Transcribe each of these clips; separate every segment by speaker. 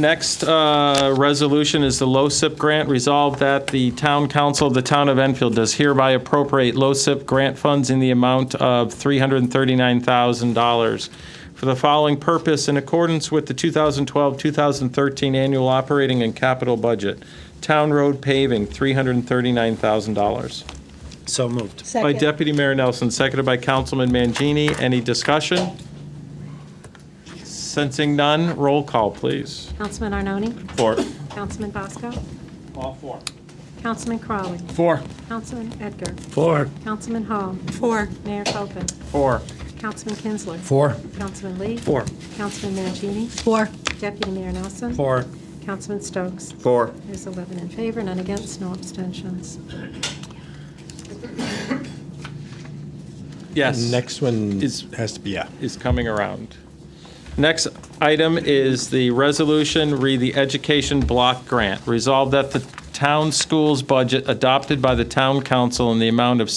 Speaker 1: Next uh, resolution is the LoSiP grant. Resolved that the Town Council of the Town of Enfield does hereby appropriate LoSiP grant funds in the amount of $339,000 for the following purpose in accordance with the 2012-2013 annual operating and capital budget. Town road paving, $339,000.
Speaker 2: So moved.
Speaker 1: By
Speaker 3: Second.
Speaker 1: Deputy Mayor Nelson, seconded by Councilman Mangini. Any discussion? Sensing none, roll call, please.
Speaker 4: Councilman Arnone,
Speaker 1: Four.
Speaker 4: Councilman Bosco,
Speaker 1: All four.
Speaker 4: Councilman Crawley,
Speaker 1: Four.
Speaker 4: Councilman Edgar,
Speaker 2: Four.
Speaker 4: Councilman Hall. Four. Mayor Copeland,
Speaker 1: Four.
Speaker 4: Councilman Kinsler.
Speaker 2: Four.
Speaker 4: Councilman Lee.
Speaker 2: Four.
Speaker 4: Councilman Mangini,
Speaker 3: Four.
Speaker 4: Deputy Mayor Nelson.
Speaker 2: Four.
Speaker 4: Councilman Stokes.
Speaker 2: Four.
Speaker 4: There's 11 in favor, none against, no abstentions.
Speaker 1: Yes.
Speaker 5: Next one
Speaker 1: Is-
Speaker 5: has to be, yeah.
Speaker 1: is coming around. Next item is the resolution, read the education block grant. Resolved that the town school's budget adopted by the town council in the amount of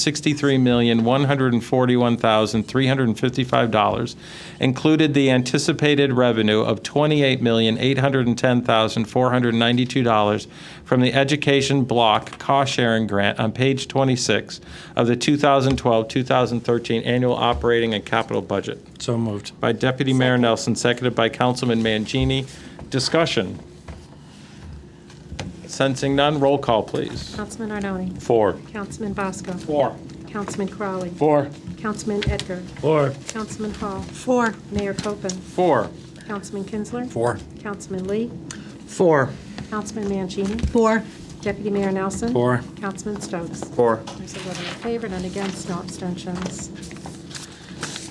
Speaker 1: $63,141,355 included the anticipated revenue of $28,810,492 from the education block cost-sharing grant on page 26 of the 2012-2013 annual operating and capital budget
Speaker 2: So moved.
Speaker 1: by Deputy Mayor Nelson, seconded by Councilman Mangini. Discussion? Sensing none, roll call, please.
Speaker 4: Councilman Arnone,
Speaker 1: Four.
Speaker 4: Councilman Bosco,
Speaker 1: Four.
Speaker 4: Councilman Crawley,
Speaker 2: Four.
Speaker 4: Councilman Edgar,
Speaker 2: Four.
Speaker 4: Councilman Hall. Four. Mayor Copeland,
Speaker 1: Four.
Speaker 4: Councilman Kinsler.
Speaker 2: Four.
Speaker 4: Councilman Lee,
Speaker 2: Four.
Speaker 4: Councilman Mangini,
Speaker 3: Four.
Speaker 4: Deputy Mayor Nelson.
Speaker 2: Four.
Speaker 4: Councilman Stokes.
Speaker 2: Four.
Speaker 4: There's 11 in favor, none against, no abstentions.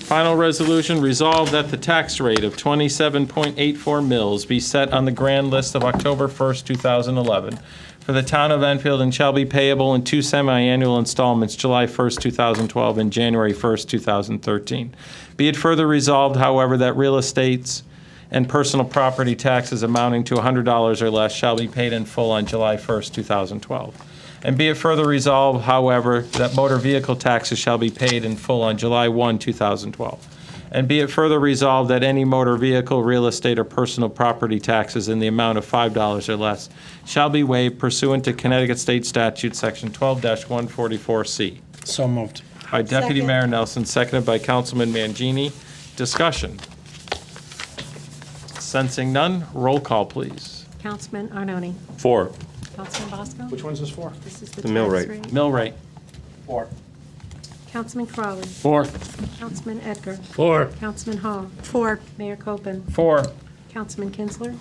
Speaker 1: Final resolution, resolved that the tax rate of 27.84 mils be set on the grand list of October 1st, 2011 for the town of Enfield and shall be payable in two semi-annual installments, July 1st, 2012 and January 1st, 2013. Be it further resolved, however, that real estates and personal property taxes amounting to $100 or less shall be paid in full on July 1st, 2012. And be it further resolved, however, that motor vehicle taxes shall be paid in full on July 1, 2012. And be it further resolved that any motor vehicle, real estate, or personal property taxes in the amount of $5 or less shall be waived pursuant to Connecticut State Statute, Section 12-144C.
Speaker 2: So moved.
Speaker 1: By Deputy
Speaker 3: Second.
Speaker 1: Mayor Nelson, seconded by Councilman Mangini. Discussion. Sensing none, roll call, please.
Speaker 4: Councilman Arnone,
Speaker 1: Four.
Speaker 4: Councilman Bosco.
Speaker 2: one's this for?
Speaker 4: This is the
Speaker 6: mill
Speaker 4: tax
Speaker 6: rate.
Speaker 4: rate.
Speaker 1: Mill rate.
Speaker 2: Four.
Speaker 4: Councilman Crawley,
Speaker 2: Four.
Speaker 4: Councilman Edgar,
Speaker 2: Four.
Speaker 4: Councilman Hall. Four. Mayor Copeland,
Speaker 1: Four.
Speaker 4: Councilman Kinsler,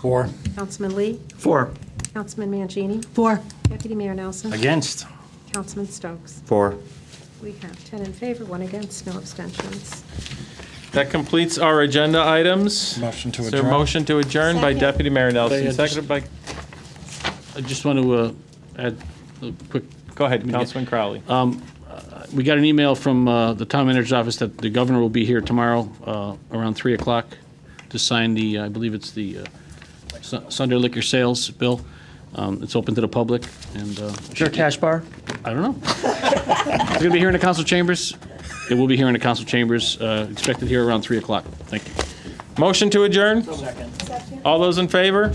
Speaker 2: Four.
Speaker 4: Councilman Lee,
Speaker 2: Four.
Speaker 4: Councilman Mangini,
Speaker 3: Four.
Speaker 4: Deputy Mayor Nelson,
Speaker 2: Against.
Speaker 4: Councilman Stokes.
Speaker 6: Four.
Speaker 4: We have 10 in favor, one against, no abstentions.
Speaker 1: That completes our agenda items.
Speaker 2: Motion to
Speaker 1: Is there a
Speaker 2: adjourn.
Speaker 1: motion to adjourn by
Speaker 4: Second.
Speaker 1: Deputy Mayor Nelson,
Speaker 7: They had-
Speaker 1: seconded by,
Speaker 7: I just want to uh, add a quick,
Speaker 1: go ahead, Councilman Crowley.
Speaker 7: we got an email from uh, the town manager's office that the governor will be here tomorrow uh, around 3 o'clock to sign the, I believe it's the uh, Su- Sunday liquor sales bill. Um, It's open to the public, and uh,
Speaker 8: Sure, cash bar?
Speaker 7: I don't know. It's going to be here in the council chambers. It will be here in the council chambers, uh, expected here around 3 o'clock. Thank you.
Speaker 1: Motion to adjourn? All those in favor?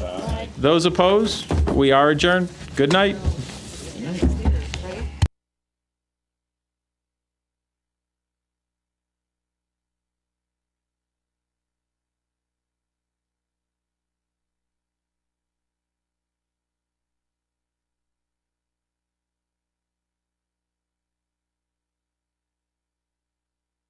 Speaker 1: Those opposed? We are adjourned. Good night.